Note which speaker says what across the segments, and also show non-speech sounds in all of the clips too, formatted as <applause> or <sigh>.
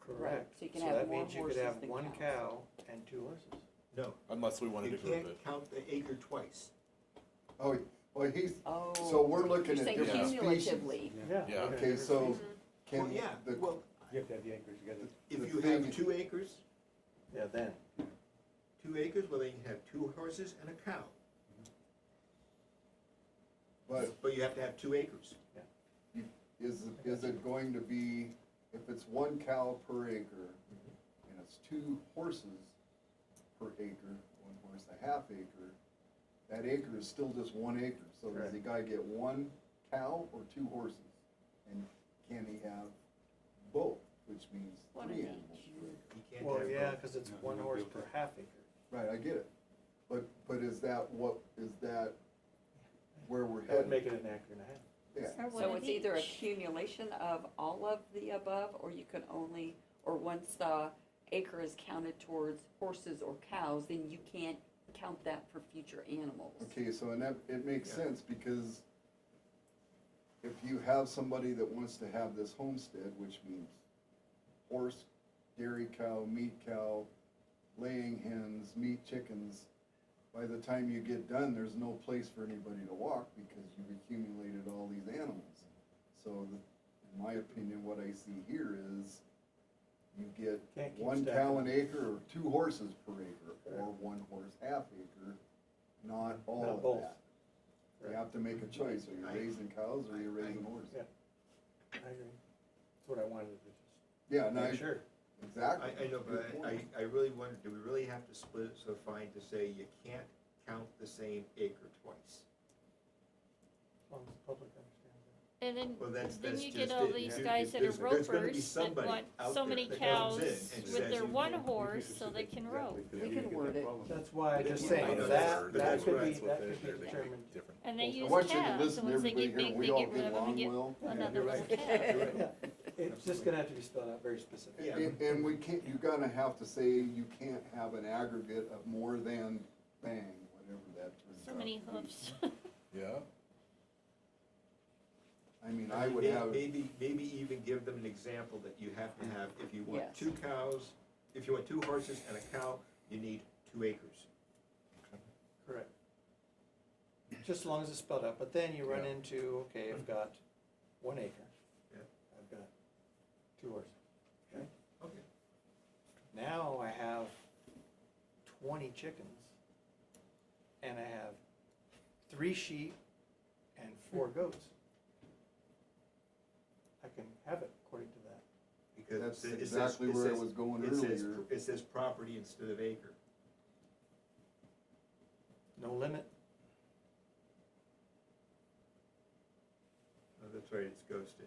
Speaker 1: Correct.
Speaker 2: So you can have more
Speaker 1: So that means
Speaker 2: horses
Speaker 1: you could have
Speaker 2: than
Speaker 1: one
Speaker 2: cows.
Speaker 1: cow and two horses.
Speaker 3: No,
Speaker 4: Unless we wanted
Speaker 3: you
Speaker 4: to group
Speaker 3: can't
Speaker 4: it.
Speaker 3: count the acre twice.
Speaker 5: Oh, well, he's,
Speaker 2: Oh.
Speaker 5: so we're
Speaker 2: You're
Speaker 5: looking at
Speaker 2: saying
Speaker 5: different species.
Speaker 2: cumulatively.
Speaker 4: Yeah.
Speaker 5: Okay, so
Speaker 3: Well,
Speaker 5: can,
Speaker 3: yeah,
Speaker 5: the,
Speaker 3: well,
Speaker 6: You have to have the acres, you gotta,
Speaker 3: if
Speaker 5: the
Speaker 3: you
Speaker 5: thing-
Speaker 3: have two acres,
Speaker 1: Yeah, then,
Speaker 3: two acres, well, then you can have two horses and a cow.
Speaker 5: but
Speaker 3: But you have to have two acres.
Speaker 5: is, is it going to be, if it's one cow per acre, and it's two horses per acre, one horse a half acre, that acre is still just one acre, so does the guy get one cow or two horses? And can he have both, which means
Speaker 2: One
Speaker 5: three
Speaker 2: of
Speaker 5: animals?
Speaker 2: each.
Speaker 5: per acre?
Speaker 3: You can't
Speaker 1: well,
Speaker 3: have
Speaker 1: yeah,
Speaker 3: both.
Speaker 1: because it's
Speaker 6: No,
Speaker 1: one
Speaker 6: you
Speaker 1: horse
Speaker 6: won't be
Speaker 1: per
Speaker 6: able
Speaker 1: half acre.
Speaker 5: Right, I get it, but, but is that what, is that where we're
Speaker 1: That would
Speaker 5: headed?
Speaker 1: make it an acre and a half.
Speaker 5: Yeah,
Speaker 7: Or one
Speaker 2: So
Speaker 7: of
Speaker 2: it's either
Speaker 7: each.
Speaker 2: accumulation of all of the above, or you can only, or once the acre is counted towards horses or cows, then you can't count that for future animals.
Speaker 5: okay, so and that, it makes
Speaker 3: Yeah.
Speaker 5: sense, because if you have somebody that wants to have this homestead, which means horse, dairy cow, meat cow, laying hens, meat chickens, by the time you get done, there's no place for anybody to walk, because you've accumulated all these animals. So, the- in my opinion, what I see here is, you get
Speaker 1: Can't keep
Speaker 5: one
Speaker 1: stacking.
Speaker 5: cow an acre or two horses per acre, or
Speaker 1: Correct.
Speaker 5: one horse half acre, not
Speaker 1: Not
Speaker 5: all of
Speaker 1: both.
Speaker 5: that. You have to make a choice, are you
Speaker 3: I-
Speaker 5: raising cows or are you
Speaker 3: I- I-
Speaker 5: raising horses?
Speaker 1: Yeah. I agree. That's what I wanted to just
Speaker 5: Yeah, no, I-
Speaker 1: make sure.
Speaker 5: exactly.
Speaker 3: I, I know, but
Speaker 5: Good
Speaker 3: I, I
Speaker 5: point.
Speaker 3: I really wonder, do we really have to split it so fine to say you can't count the same acre twice?
Speaker 1: As long as the public understands that.
Speaker 7: And then,
Speaker 3: Well, that's,
Speaker 7: then
Speaker 3: that's
Speaker 7: you
Speaker 3: just
Speaker 7: get all
Speaker 3: it.
Speaker 7: these
Speaker 3: There-
Speaker 7: guys that are
Speaker 3: there's- there's gonna be
Speaker 7: ropers that
Speaker 3: somebody
Speaker 7: want
Speaker 3: out
Speaker 7: so
Speaker 3: there
Speaker 7: many
Speaker 3: that
Speaker 7: cows
Speaker 3: comes in and
Speaker 7: with
Speaker 3: says
Speaker 7: their
Speaker 3: you
Speaker 7: one
Speaker 3: can't.
Speaker 7: horse so they can rope.
Speaker 2: We can word it.
Speaker 1: That's why I'm
Speaker 2: But
Speaker 1: just
Speaker 2: you-
Speaker 1: saying,
Speaker 2: I know
Speaker 1: that,
Speaker 3: that's-
Speaker 1: that
Speaker 3: that's
Speaker 1: could
Speaker 3: right.
Speaker 1: be,
Speaker 3: That's
Speaker 1: that could be
Speaker 4: They're
Speaker 1: determined.
Speaker 4: different.
Speaker 7: And they
Speaker 5: I
Speaker 7: use
Speaker 5: want you to
Speaker 7: calves, and
Speaker 5: listen to
Speaker 7: once they
Speaker 5: everybody
Speaker 7: get
Speaker 5: here,
Speaker 7: big, they
Speaker 5: we all
Speaker 7: get rid
Speaker 5: get
Speaker 7: of them and
Speaker 5: along
Speaker 7: get
Speaker 5: well.
Speaker 3: Yeah,
Speaker 7: another
Speaker 3: you're
Speaker 7: little
Speaker 3: right.
Speaker 7: calf.
Speaker 3: You're right.
Speaker 1: <laughs> It's just gonna have to be spelled out very specifically.
Speaker 3: Yeah.
Speaker 5: And, and we can't, you're gonna have to say you can't have an aggregate of more than bang, whatever that turns out.
Speaker 7: So many
Speaker 5: to be.
Speaker 7: hoofs.
Speaker 4: Yeah.
Speaker 5: I mean, I would have,
Speaker 3: Maybe, maybe even give them an example that you have to have, if you want
Speaker 2: Yes.
Speaker 3: two cows, if you want two horses and a cow, you need two acres.
Speaker 1: Correct. Just as long as it's spelled out, but then you run
Speaker 5: Yeah.
Speaker 1: into, okay, I've got one acre.
Speaker 3: Yeah.
Speaker 1: I've got two horses.
Speaker 3: Okay.
Speaker 1: Now I have twenty chickens. And I have three sheep and four goats. I can have it according to that.
Speaker 3: Because
Speaker 5: that's
Speaker 3: it says- it says-
Speaker 5: exactly
Speaker 3: it
Speaker 5: where I
Speaker 3: says-
Speaker 5: was going
Speaker 3: It says,
Speaker 5: earlier.
Speaker 3: it says property instead of acre.
Speaker 1: No limit,
Speaker 3: Oh, That's right, it's ghosted.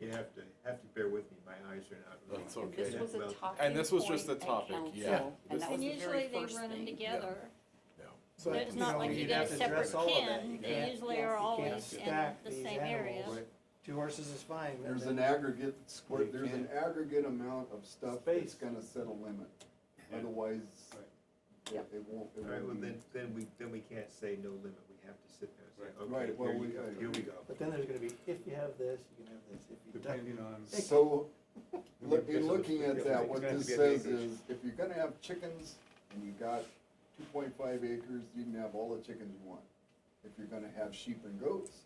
Speaker 3: You have to, have to bear with me, my eyes are not. really-
Speaker 4: That's
Speaker 2: And
Speaker 4: okay.
Speaker 2: this was a
Speaker 3: Well,
Speaker 2: topic.
Speaker 4: And this was just
Speaker 2: point
Speaker 4: a
Speaker 2: at
Speaker 4: topic,
Speaker 2: council,
Speaker 4: yeah.
Speaker 2: And that was
Speaker 7: And
Speaker 2: the very
Speaker 7: usually they
Speaker 2: first
Speaker 7: run them
Speaker 2: thing.
Speaker 7: together.
Speaker 1: but,
Speaker 7: It's
Speaker 1: you
Speaker 7: not
Speaker 1: know,
Speaker 7: like you
Speaker 1: you'd
Speaker 7: get
Speaker 1: have
Speaker 7: a
Speaker 1: to address
Speaker 7: separate
Speaker 1: all of that.
Speaker 7: pen,
Speaker 1: You
Speaker 7: they
Speaker 1: can't-
Speaker 7: usually
Speaker 2: yes,
Speaker 7: are
Speaker 2: you can't
Speaker 7: always in
Speaker 1: stack
Speaker 7: the
Speaker 1: these
Speaker 7: same area.
Speaker 1: animals. Two horses is fine.
Speaker 5: There's
Speaker 1: and
Speaker 5: an
Speaker 1: then-
Speaker 5: aggregate square,
Speaker 3: You
Speaker 5: there's an
Speaker 3: can't-
Speaker 5: aggregate amount of stuff that's
Speaker 1: Space.
Speaker 5: gonna set a limit,
Speaker 6: Yeah.
Speaker 5: otherwise, it
Speaker 2: Yeah.
Speaker 5: it won't, it
Speaker 3: All right, well,
Speaker 5: won't be.
Speaker 3: then, then we, then we can't say no limit, we have to sit there and say, okay,
Speaker 5: Right, well,
Speaker 3: here
Speaker 5: we-
Speaker 3: you go,
Speaker 5: I-
Speaker 3: here we go.
Speaker 1: But then there's gonna be, if you have this, you can have this, if you don't.
Speaker 6: depending on.
Speaker 5: So, <laughs> look,
Speaker 6: This
Speaker 5: in
Speaker 6: is-
Speaker 5: looking
Speaker 6: yeah,
Speaker 5: at that,
Speaker 6: it's
Speaker 5: what
Speaker 6: gonna have
Speaker 5: this
Speaker 6: to be an
Speaker 5: says
Speaker 6: acreage.
Speaker 5: is, if you're gonna have chickens and you've got two point five acres, you can have all the chickens you want. If you're gonna have sheep and goats,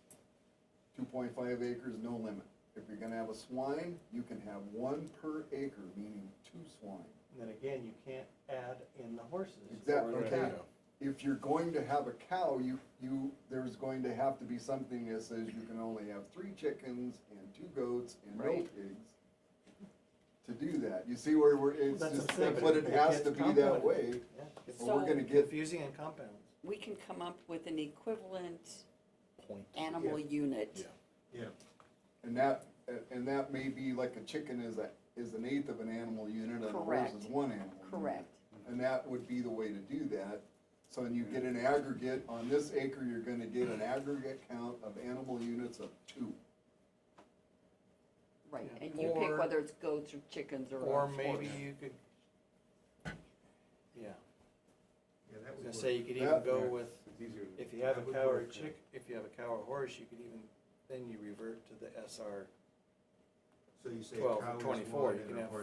Speaker 5: two point five acres, no limit. If you're gonna have a swine, you can have one per acre, meaning two swine.
Speaker 1: And then again, you can't add in the horses.
Speaker 5: Exactly,
Speaker 1: or the
Speaker 5: okay.
Speaker 1: cattle.
Speaker 5: If you're going to have a cow, you, you, there's going to have to be something that says you can only have three chickens and two goats and no
Speaker 1: Right.
Speaker 5: pigs to do that. You see where we're, it's
Speaker 1: That's
Speaker 5: just,
Speaker 1: what I'm saying,
Speaker 5: but it
Speaker 1: it
Speaker 5: has
Speaker 1: gets
Speaker 5: to be that
Speaker 1: complicated. Yeah,
Speaker 5: way,
Speaker 1: it gets
Speaker 5: or we're
Speaker 2: So-
Speaker 5: gonna get,
Speaker 1: Confusing and compounds.
Speaker 2: We can come up with an equivalent
Speaker 4: Point.
Speaker 2: animal
Speaker 4: Yeah.
Speaker 2: unit.
Speaker 3: Yeah,
Speaker 5: and that, and that may be like a chicken is a, is an eighth of an animal unit and a horse
Speaker 2: Correct.
Speaker 5: is one animal. unit.
Speaker 2: Correct.
Speaker 5: And that would be the way to do that. So when you get an aggregate, on this acre, you're gonna get an aggregate count of animal units of two.
Speaker 2: Right,
Speaker 1: Yeah.
Speaker 2: and you pick
Speaker 1: Or-
Speaker 2: whether it's goats or chickens or.
Speaker 1: Or
Speaker 2: a
Speaker 1: maybe
Speaker 2: horse.
Speaker 1: you could, yeah,
Speaker 3: yeah, that
Speaker 1: I was
Speaker 3: would
Speaker 1: gonna
Speaker 3: work.
Speaker 1: say, you could
Speaker 5: Yeah.
Speaker 1: even go
Speaker 6: Yeah.
Speaker 1: with,
Speaker 6: It's easier.
Speaker 1: if you have a
Speaker 6: That would
Speaker 1: cow or a
Speaker 6: work, yeah.
Speaker 1: chick, if you have a cow or horse, you could even, then you revert to the SR
Speaker 3: So you say a
Speaker 1: twelve
Speaker 3: cow
Speaker 1: or
Speaker 3: is
Speaker 1: twenty-four,
Speaker 3: one
Speaker 1: you
Speaker 3: and
Speaker 1: can
Speaker 3: a
Speaker 1: have
Speaker 3: horse